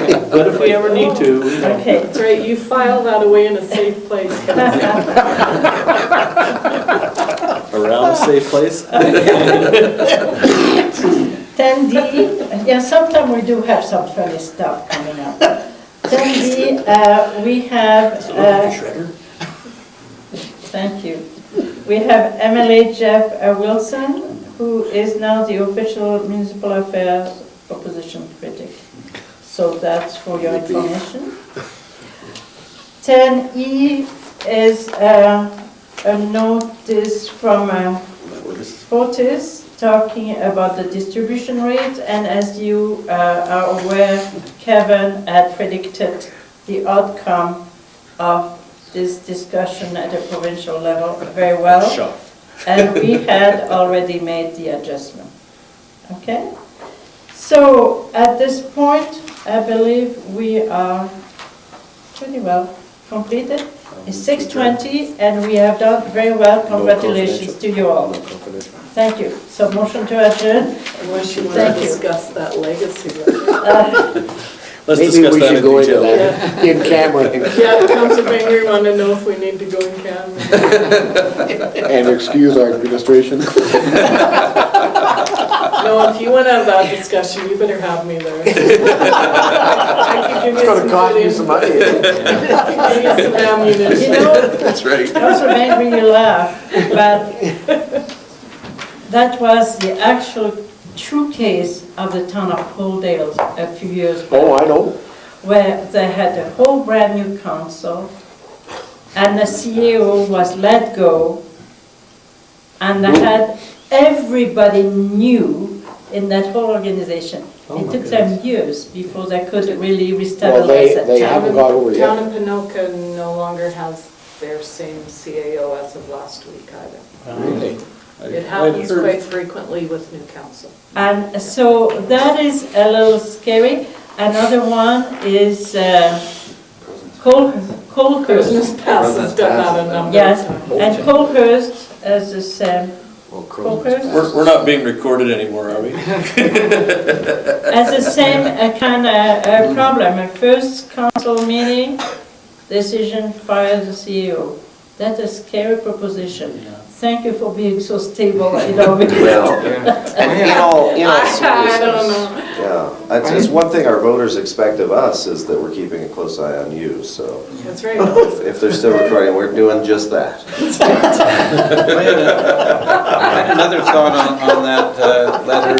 But if we ever need to, you know. Okay, That's right, you file that away in a safe place. Around a safe place? ten D, yeah, sometime we do have some funny stuff coming up. Ten D, uh, we have, uh, Shredder? Thank you. We have MLA Jeff uh, Wilson, who is now the official municipal affairs opposition critic. So that's for your information. 10E is uh, a notice from uh, Oh. Fortis talking about the distribution rate. And as you uh, are aware, Kevin had predicted the outcome of this discussion at the provincial level very well. Sure. And we had already made the adjustment. Okay? So at this point, I believe we are pretty well completed. It's 6:20 and we have done very well. Congratulations to you all. Thank you. So motion to adjourn. Unless you want to Thank you. discuss that legacy. letter. Let's Maybe discuss we that in should go into detail. that in camera Yeah, Council Banger want to know if we need to go in camera. And excuse our administration. No, if you want to have that discussion, you better have me there. I could give It's you gonna some cost good you some input, money. give you some You ammunition. know, That's right. also made me laugh, but that was the actual true case of the town of Holdale a few years back, Oh, I know. where they had a whole brand-new council, and the CEO was let go, and they had, everybody new in that whole organization. It took them years before they could really Well, they, restabilize they it. haven't got over it Town yet. of Pinoca no longer has their same CAO as of last week either. Really? It happens quite frequently with new council. And so that is a little scary. Another one is uh, Col- Colhurst. Christmas Pass has done that a number Yes, of times. and Colhurst as the same, We're, we're not being recorded anymore, are we? as the same uh, kind of problem. A first council meeting, decision fire the E CEO. That's a scary proposition. Thank you for being so stable in our Well, and in all, in all I don't know. seriousness, yeah, that's, it's one thing our voters expect of us is that we're keeping a close eye on you, so That's right. if they're still recording, we're doing just that. I had a- Another thought on, on that uh, letter.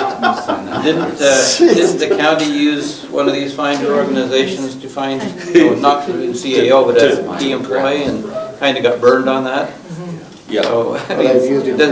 Didn't, uh, didn't the county use one of these finder organizations to find, you know, not in CAO, but as a key employee and kind of got burned on that? Yeah. So, I Well, they've used mean, it doesn't-